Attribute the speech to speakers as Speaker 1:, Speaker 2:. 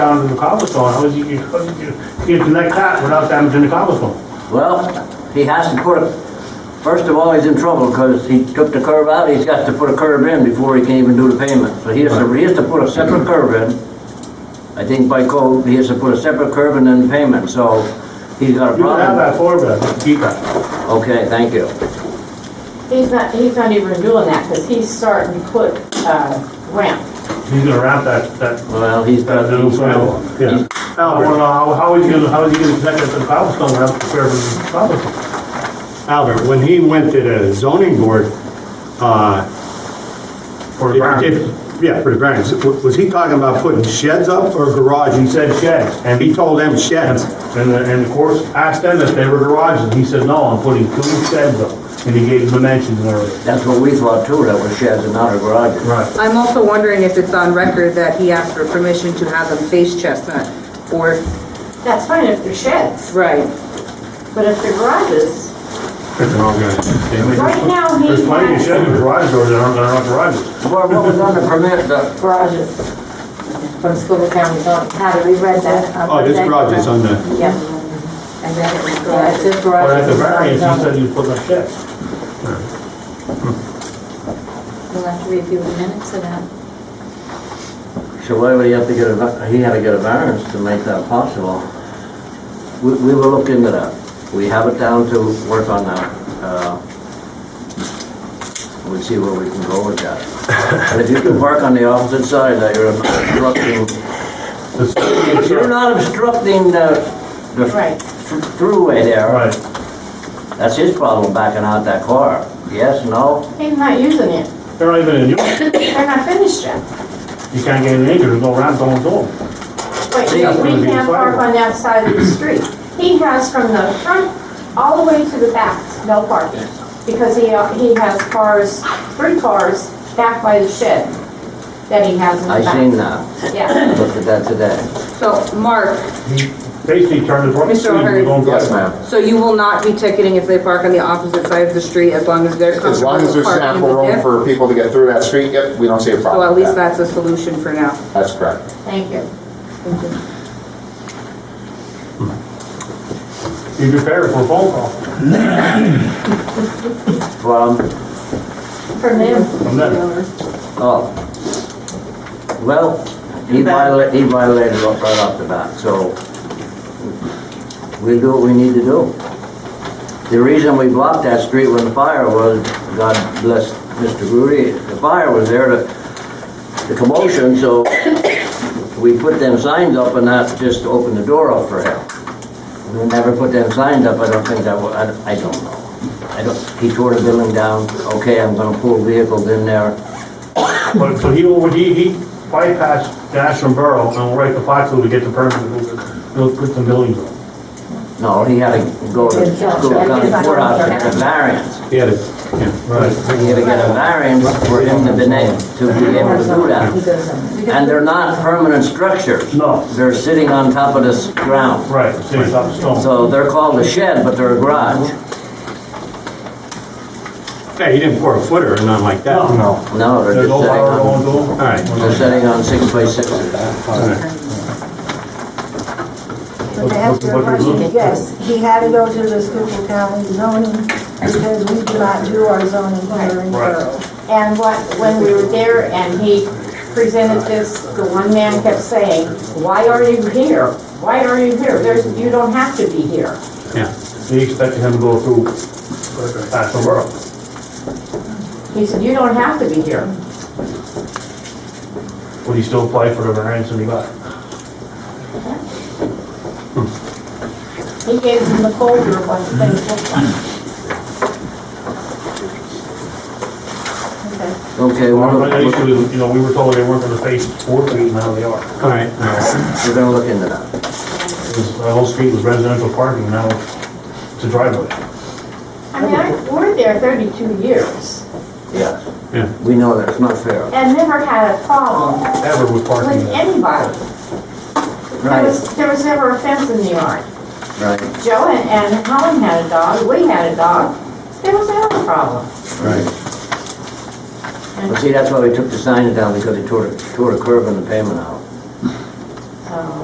Speaker 1: down in the cobblestone, how would you, how would you get to that cat without damaging the cobblestone?
Speaker 2: Well, he has to put a, first of all, he's in trouble because he took the curb out, he's got to put a curb in before he can even do the payment. So he has to, he has to put a separate curb in. I think by code, he has to put a separate curb and then payment, so he's got a
Speaker 1: You can have
Speaker 2: problem.
Speaker 1: that four bed, keep that.
Speaker 2: Okay, thank you.
Speaker 3: He's not, he's not even doing that, because he's starting to put, uh, ramp.
Speaker 1: He's gonna wrap that, that,
Speaker 2: Well, he's got,
Speaker 1: that little
Speaker 2: he's
Speaker 1: trail.
Speaker 2: got,
Speaker 1: Yeah. Now, I wanna know, how, how would you, how would you get connected to the cobblestone without disturbing the cobblestone?
Speaker 4: Albert, when he went to the zoning board, uh,
Speaker 1: Or
Speaker 4: if-
Speaker 1: ground?
Speaker 4: if- yeah, for the variance, w- was he talking about putting sheds up or
Speaker 1: He
Speaker 4: garages?
Speaker 1: said sheds, and
Speaker 4: He told them sheds.
Speaker 1: And, and of course, asked them if they were garages, he said, no, I'm putting two sheds up, and he gave dimensions and everything.
Speaker 2: that's what we thought too, that was sheds and not a garage.
Speaker 1: Right.
Speaker 5: I'm also wondering if it's on record that he asked for permission to have them face Chestnut, or,
Speaker 3: That's fine if they're sheds,
Speaker 5: right,
Speaker 3: but if they're garages, right now he
Speaker 1: There's plenty of
Speaker 3: has
Speaker 1: sheds with garage doors, that aren't, that aren't garages.
Speaker 2: Well, what was on the permit, the,
Speaker 6: garages from school of county zone. Had we read that? I
Speaker 4: Oh,
Speaker 6: read
Speaker 4: this
Speaker 6: that.
Speaker 4: garage is on the,
Speaker 6: Yeah. And then it was garage. Yeah, it says garage.
Speaker 1: But at the variance, he said he was putting up sheds.
Speaker 6: We'll have to review the minutes of that.
Speaker 2: so why would he have to get a, va- he had to get a variance to make that possible? We, we will look into that. We have it down to work on that. Uh, We'll see where we can go with that. And if you can park on the opposite side, that you're obstructing, if you're not obstructing the, the
Speaker 3: Right.
Speaker 2: thr- throughway there,
Speaker 1: Right,
Speaker 2: that's his problem backing out that car. Yes, no?
Speaker 3: He's not using it.
Speaker 1: they're not even in use,
Speaker 3: They're not finished yet.
Speaker 1: you can't get any acres, there's no ramp going to them.
Speaker 3: But
Speaker 2: See,
Speaker 3: we
Speaker 2: that's
Speaker 1: gonna be
Speaker 3: can't park
Speaker 1: fine.
Speaker 3: on that side of the street. He has from the front all the way to the back, no parking. Because he, uh, he has cars, three cars back by the shed that he has in
Speaker 2: I
Speaker 3: the
Speaker 2: seen
Speaker 3: back.
Speaker 2: that.
Speaker 3: Yeah.
Speaker 2: I Looked at that today.
Speaker 5: so, Mark,
Speaker 1: He basically turned his right
Speaker 5: Mr.
Speaker 1: street
Speaker 5: O'Hare.
Speaker 1: and going
Speaker 7: Yes,
Speaker 1: right.
Speaker 7: ma'am.
Speaker 5: so you will not be ticketing if they park on the opposite side of the street, as long as they're comfortable
Speaker 7: As long as there's
Speaker 5: parking
Speaker 7: ample room
Speaker 5: there?
Speaker 7: for people to get through that street, yep, we don't see a problem.
Speaker 5: So at
Speaker 7: with
Speaker 5: least
Speaker 7: that.
Speaker 5: that's a solution for now.
Speaker 7: That's correct.
Speaker 3: Thank you.
Speaker 1: Be prepared for a phone call
Speaker 2: From
Speaker 3: From him,
Speaker 1: from them.
Speaker 2: Oh. Well, he violated, he violated right right off the bat, so we do what we need to do. The reason we blocked that street when the fire was, God bless Mr. Grudy, the fire was there to, the commotion, so we put them signs up and that just opened the door up for him. We never put them signs up, I don't think that, wa- I, don't- I don't know. I don't, he tore the building down, okay, I'm gonna pull vehicles in there.
Speaker 1: But, so he, will- he, he bypassed National Borough and went right to Foxville to get the permit to move- to put some buildings up.
Speaker 2: No, he had to go to
Speaker 6: Didn't
Speaker 2: school,
Speaker 6: judge.
Speaker 2: county
Speaker 6: Didn't
Speaker 2: courthouse to
Speaker 6: judge.
Speaker 2: get a variance.
Speaker 4: he had it, yeah.
Speaker 1: Right.
Speaker 2: He had to get a variance for him to be na- to be able to do that. And they're not permanent structures.
Speaker 1: No.
Speaker 2: They're sitting on top of this ground.
Speaker 1: Right, six up stone.
Speaker 2: So they're called a shed, but they're a garage.
Speaker 4: Yeah, he didn't pour a footer or nothing like that.
Speaker 1: No.
Speaker 4: No.
Speaker 2: No, they're
Speaker 1: There's no
Speaker 2: just sitting
Speaker 1: power going to
Speaker 2: on,
Speaker 1: them.
Speaker 4: All right.
Speaker 2: they're sitting on six by sixes.
Speaker 8: But to answer your question, yes, he had to go to the Schuylkill County zoning because we do not do our zoning here in
Speaker 1: Right.
Speaker 8: borough.
Speaker 3: and what, when we were there and he presented this, the one man kept saying, why are you here? Why are you here? There's, you don't have to be here.
Speaker 4: Yeah.
Speaker 1: He expected him to go through National Borough.
Speaker 3: He said, you don't have to be here.
Speaker 1: Would he still apply for the variance and he got?
Speaker 3: He gave him the folder of what things looked like.
Speaker 2: Okay, we're,
Speaker 1: Well, the
Speaker 2: we're
Speaker 1: issue is, you know, we were told they weren't gonna face four feet, and now they are.
Speaker 4: All right.
Speaker 2: we're gonna look into that.
Speaker 1: It was- The whole street was residential parking, now it's a driveway.
Speaker 3: I mean, I, we're there thirty-two years
Speaker 4: Yeah.
Speaker 2: Yes. We know that's not fair.
Speaker 3: and never had a problem
Speaker 1: Ever with parking.
Speaker 3: with anybody. There
Speaker 2: Right,
Speaker 3: was, there was never a fence in the yard.
Speaker 2: right,
Speaker 3: Joe and- and Helen had a dog, we had a dog, there was never a problem.
Speaker 2: right. Well, see, that's why we took the sign down, because he tore, tore a curb in the pavement out.
Speaker 3: So-